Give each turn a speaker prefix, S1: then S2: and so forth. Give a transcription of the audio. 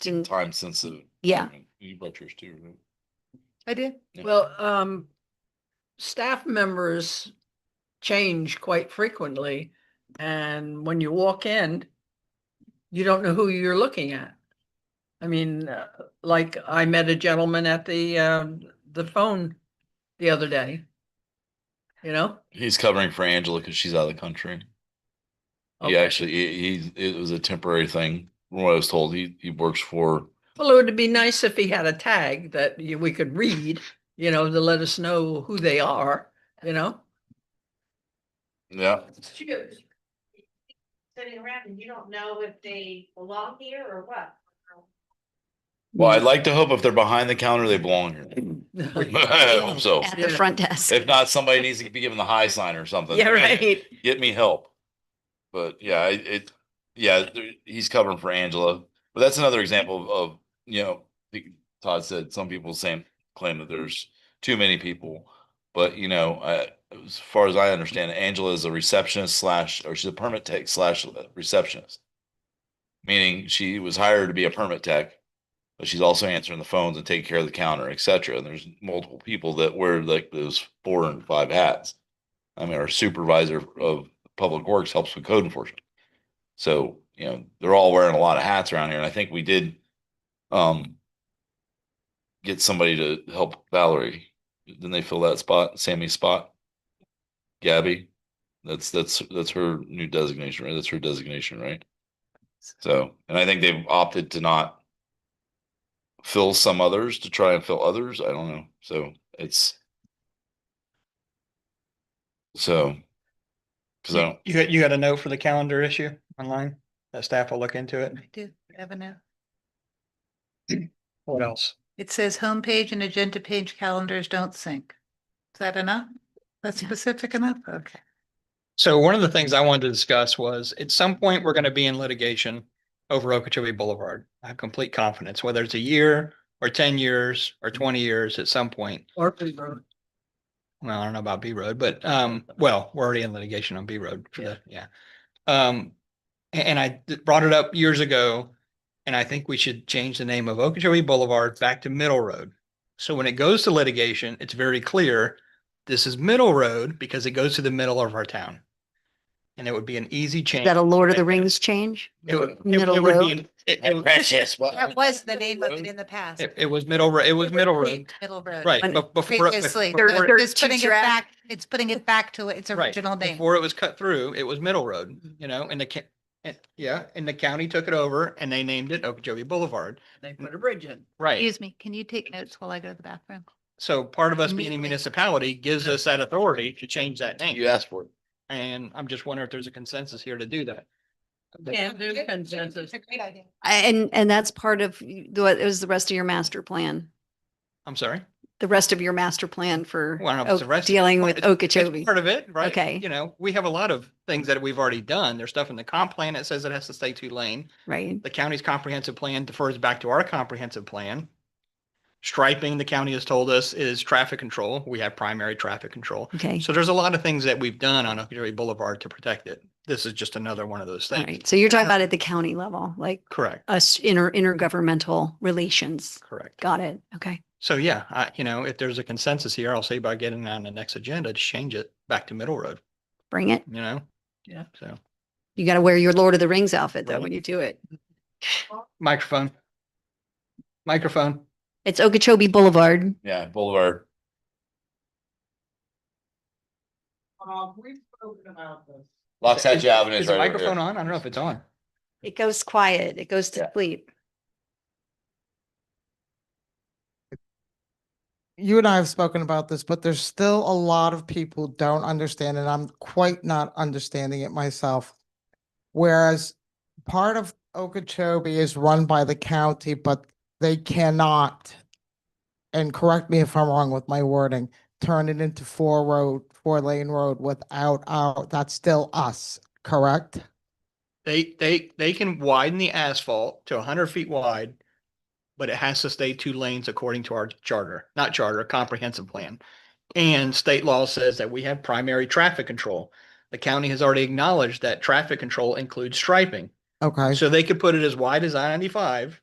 S1: didn't,
S2: time sensitive.
S1: Yeah.
S2: You brought yours too, right?
S3: I did.
S2: Yeah.
S4: Well, um, staff members change quite frequently. And when you walk in, you don't know who you're looking at. I mean, uh, like I met a gentleman at the, um, the phone the other day. You know?
S2: He's covering for Angela because she's out of the country. He
S4: Okay.
S2: actually, he, he's- it was a temporary thing. From what I was told, he, he works for,
S4: Well, it would be nice if he had a tag that you- we could read, you know, to let us know who they are, you know?
S2: yeah,
S5: Choose. Sitting around and you don't know if they belong here or what.
S2: well, I'd like to hope if they're behind the counter, they belong here. I hope so.
S1: at the
S4: Yeah.
S1: front desk.
S2: If not, somebody needs to be given the high sign or something.
S1: Yeah, right.
S2: Get me help. But yeah, it, it, yeah, there- he's covering for Angela. But that's another example of, of, you know, I think Todd said, some people saying, claim that there's too many people. But you know, I, as far as I understand, Angela is a receptionist slash, or she's a permit tech slash receptionist. Meaning she was hired to be a permit tech, but she's also answering the phones and taking care of the counter, et cetera. And there's multiple people that wear like those four and five hats. I mean, our supervisor of public works helps with code enforcement. So, you know, they're all wearing a lot of hats around here. And I think we did um get somebody to help Valerie. Didn't they fill that spot, Sammy's spot? Gabby, that's, that's, that's her new designation, right? That's her designation, right? So, and I think they've opted to not fill some others to try and fill others. I don't know. So it's so, cause I don't,
S6: You got, you got a note for the calendar issue online? That staff will look into it.
S3: I did have a note.
S6: What else?
S3: It says homepage and agenda page calendars don't sync. Is that enough? That's
S1: Yeah.
S3: specific enough? Okay.
S6: So one of the things I wanted to discuss was at some point, we're going to be in litigation over Okeechobee Boulevard. I have complete confidence, whether it's a year or ten years or twenty years at some point.
S4: Or Road.
S6: Well, I don't know about B Road, but um, well, we're already in litigation on B Road for the, yeah. Um, a- and, I d- brought it up years ago. And I think we should change the name of Okeechobee Boulevard back to Middle Road. So when it goes to litigation, it's very clear this is Middle Road because it goes to the middle of our town. And it would be an easy
S1: Is
S6: change.
S1: that a Lord of the Rings change?
S6: It would- it- it
S1: Middle
S6: would be
S1: Road?
S6: an- it- it-
S2: Precious.
S3: That was the name of it in the past.
S6: It, it was Middle Road, it was Middle Road,
S3: Creek, Middle Road.
S6: right?
S1: When-
S6: bef- before it-
S3: Previously,
S6: before
S1: There-
S6: it-
S1: there-
S3: it's
S1: to
S3: putting it
S1: draft-
S3: back, it's putting it back to its
S6: Right,
S3: original name.
S6: Before it was cut through, it was Middle Road, you know, and the, ca- and, yeah, and the county took it over and they named it Okeechobee Boulevard.
S4: They put a bridge in.
S6: Right.
S3: Excuse me, can you take notes while I go to the bathroom?
S6: So part of us being a
S3: Immediately.
S6: municipality gives us that authority to change that
S2: You
S6: name.
S2: asked for it.
S6: And I'm just wondering if there's a consensus here to do that. That-
S4: Yeah, there's consensus.
S3: It's a great idea.
S1: I- And, and that's part of y- the, it was the rest of your master plan,
S6: I'm sorry.
S1: the rest of your master plan for
S6: Well, I don't know if it's
S1: Oak-
S6: the rest-
S1: dealing
S6: well,
S1: with
S6: it's- it's
S1: Okeechobee.
S6: Part of it, right?
S1: Okay.
S6: You know, we have a lot of things that we've already done. There's stuff in the comp plan that says it has to stay two lane.
S1: Right.
S6: The county's comprehensive plan defers back to our comprehensive plan. Striping, the county has told us, is traffic control. We have primary traffic control.
S1: Okay.
S6: So there's a lot of things that we've done on Okeechobee Boulevard to protect it. This is just another one of those
S1: All
S6: things.
S1: right. So you're talking about at the county level, like
S6: Correct,
S1: us inter, intergovernmental relations.
S6: correct.
S1: Got it. Okay.
S6: So yeah, I, you know, if there's a consensus here, I'll say by getting on the next agenda to change it back to Middle Road,
S1: Bring it.
S6: you know?
S4: Yeah.
S6: So
S1: You got to wear your Lord of the Rings outfit though
S6: Right.
S1: when you do it.
S6: microphone. Microphone.
S1: It's Okeechobee Boulevard.
S2: Yeah, Boulevard.
S5: Um, we've spoken about this.
S2: Locks
S6: Is-
S2: Avenue
S6: Is
S2: is
S6: the
S2: right over
S6: microphone
S2: here.
S6: on? I don't know if it's on.
S1: It goes quiet. It goes to
S2: Yeah.
S1: sleep.
S7: you and I have spoken about this, but there's still a lot of people don't understand, and I'm quite not understanding it myself. Whereas part of Okeechobee is run by the county, but they cannot, and correct me if I'm wrong with my wording, turn it into four road, four lane road without our, that's still us, correct?
S6: They, they, they can widen the asphalt to hundred feet wide, but it has to stay two lanes according to our charter, not charter, comprehensive plan. And state law says that we have primary traffic control. The county has already acknowledged that traffic control includes striping.
S7: Okay,
S6: So they could put it as wide as I ninety-five